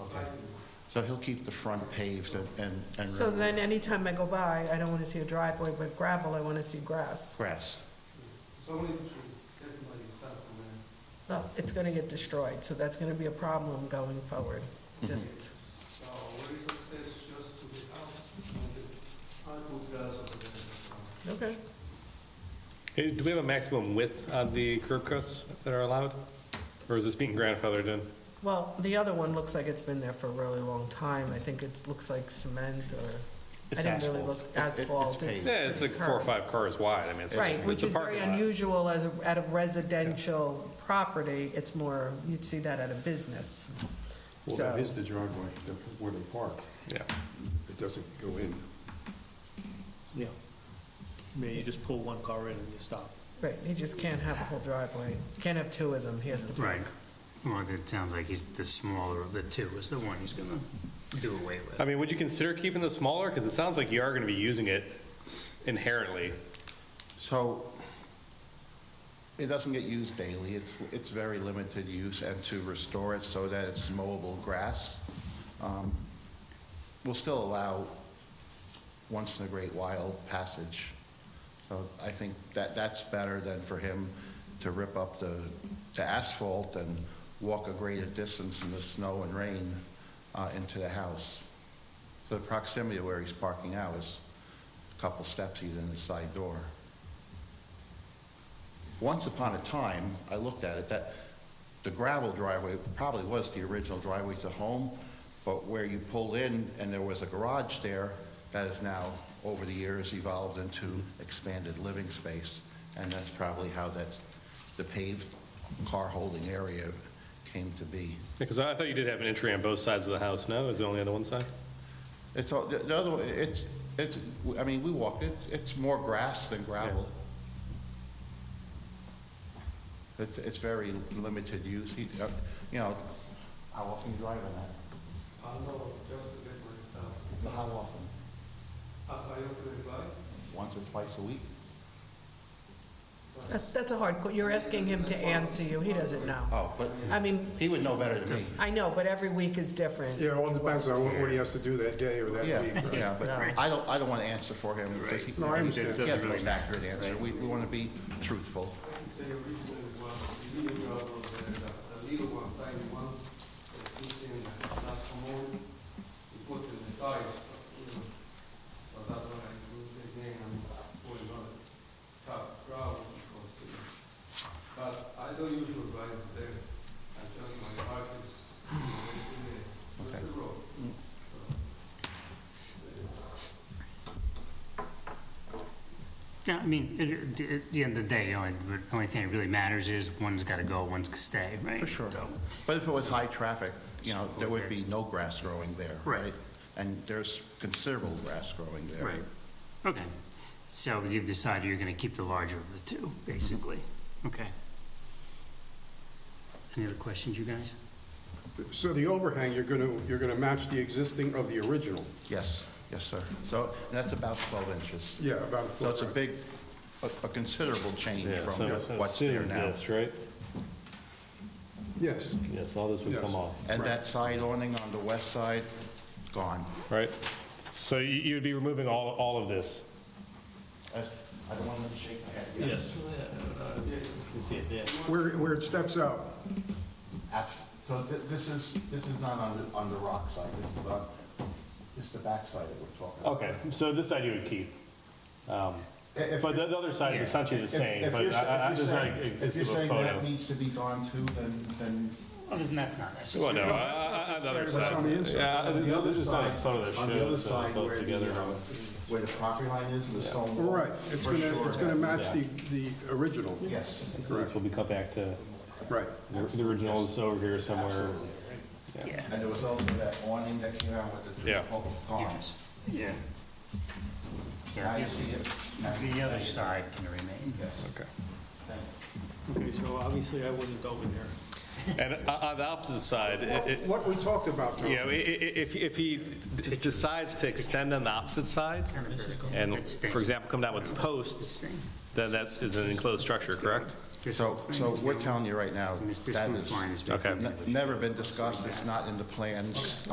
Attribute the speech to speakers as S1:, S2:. S1: Um,
S2: So he'll keep the front paved and, and- and
S1: So
S2: remove
S1: then anytime I go by, I don't wanna see a driveway, but gravel, I wanna see grass.
S2: grass.
S3: So many trees, definitely stuff in there.
S1: No, Oh, it's gonna get destroyed, so that's gonna be a problem going forward.
S2: Mm-hmm.
S1: Just,
S3: So what is access just to the house, and the, I put grass over there. so.
S1: okay.
S4: Hey, Do we have a maximum width on the curb cuts that are allowed? Or is this being grandfathered in?
S1: Well, the other one looks like it's been there for a really long time. I think it looks like cement or, I
S2: It's
S1: didn't really
S2: asphalt.
S1: look,
S2: It- it- it's
S1: asphalt.
S2: paved.
S4: Yeah, it's like four or five cars wide, I mean, it's
S1: Right,
S4: it's
S1: which
S4: a
S1: is very
S4: parking lot.
S1: unusual as a, at a residential property. It's more, you'd see that at a business.
S5: Well,
S1: So-
S5: that is the driveway, the- where they park.
S4: Yeah,
S5: It doesn't go in.
S6: Yeah. I mean, you just pull one car in and you stop.
S1: Right, he just can't have a whole driveway. Can't have two of them. He has to. pick.
S7: Right. Well, it sounds like he's the smaller of the two is the one he's gonna do away
S4: I
S7: with.
S4: mean, would you consider keeping this smaller? Because it sounds like you are going to be using it inherently.
S2: So it doesn't get used daily. It's, it's very limited use and to restore it so that it's mowable grass, um, will still allow once in a great while passage. So I think that, that's better than for him to rip up the, the asphalt and walk a greater distance in the snow and rain, uh, into the house. So the proximity of where he's parking now is a couple steps, he's in his side door. Once upon a time, I looked at it, that the gravel driveway probably was the original driveway to the home, but where you pull in and there was a garage there, that has now, over the years, evolved into expanded living space. And that's probably how that, the paved car holding area came to be.
S4: Because I thought you did have an entry on both sides of the house, no? Is it only on the one side?
S2: It's, all- the the other, one, it's, it's, I mean, we walked it, it's more grass than gravel. It's, it's very limited use, he, uh, you know, how often you drive on that?
S3: I know, just to get my stuff.
S2: How often?
S3: Up I open it by,
S2: Once or twice a week?
S1: That- That's a hard, que- you're asking him to answer you. He doesn't know.
S2: Oh, but
S1: I mean,
S2: he would know better than me.
S1: I know, but every week is different.
S5: Yeah, all depends on what he has to do that day or that
S2: Yeah,
S5: week. right?
S2: yeah, but
S1: Right.
S2: I don't, I don't want to answer for him because he,
S5: No, I
S2: he
S5: understand.
S2: has the most accurate answer. We, we want to be truthful.
S3: say originally it was the little gravel over there, the, the little one, tiny one, that put in uh, the last commode, you put in the tires, you know. So that's what I do again, I'm putting on top gravel, because, you know. But I don't usually drive there, I just, my heart is in the, in
S2: Okay.
S3: the road.
S7: Yeah, I mean, at, at the end of the day, the only, the only thing that really matters is one's gotta go, one's gonna stay, right?
S2: For sure.
S7: So,
S2: But if it was high traffic, you know, there would be no grass growing there,
S7: Right.
S2: right? And there's considerable grass growing there.
S7: Right, okay. So you've decided you're gonna keep the larger of the two, basically, okay. Any other questions, you guys?
S5: So the overhang, you're gonna, you're gonna match the existing of the original.
S2: Yes, yes, sir. So that's about 12 inches.
S5: Yeah, about a
S2: So it's a
S5: foot, right?
S2: big, a a considerable change from what's there now.
S4: right?
S5: Yes,
S4: Yes, all this would
S5: Yes.
S4: come off,
S2: And that side awning on the west side, gone.
S4: right? So you, you'd be removing all, all of this?
S2: I Uh, I don't want them to shake my head.
S6: Yes. You see it there.
S5: where, where it steps out.
S2: Abs- So thi- this is, this is not on the, on the rock side, this is on, this is the back side that we're talking about.
S4: Okay, so this side you would keep. Um,
S2: I- if
S4: But the the other side is essentially the
S2: If-
S4: same,
S2: if you're
S4: but
S2: sa-
S4: I- I-
S2: if
S4: I'm
S2: you're
S4: just like,
S2: saying-
S4: just give a
S2: If you're saying that
S4: photo. Uh,
S2: needs to be gone too, then, then
S7: Well, isn't- that's not necessary.
S4: Well, no, I- I- I- on the other side.
S5: on the inside.
S4: Yeah,
S2: on the other
S4: there's just not a
S2: side,
S4: photo that
S2: on the other
S4: shows uh,
S2: side
S4: both
S2: where
S4: together.
S2: the, um, where the property line is and the stone wall.
S5: Right, it's
S2: for
S5: gonna,
S2: sure
S5: it's gonna
S2: that-
S5: match the, the original.
S2: Yes.
S4: So This will be cut back to,
S5: Right.
S4: the the original is over here somewhere.
S7: Yeah.
S2: And there was also that awning that came out with the
S4: Yeah.
S2: two poles gone.
S7: Yes. Yeah.
S2: Now
S7: Yeah,
S2: you see it.
S7: the other side can remain.
S2: Yes,
S4: Okay.
S2: thank you.
S6: Okay, so obviously I wasn't over there.
S4: And o- on the opposite side, it- it-
S5: What we talked about, Tom.
S4: you know, i- i- if, if he d- decides to extend on the opposite side, and, for example, come down with posts, then that is an enclosed structure, correct?
S2: So, so we're telling you right now,
S7: This
S2: that
S7: roof
S2: is
S7: line is
S4: Okay.
S2: n- never been discussed, it's not in the plans.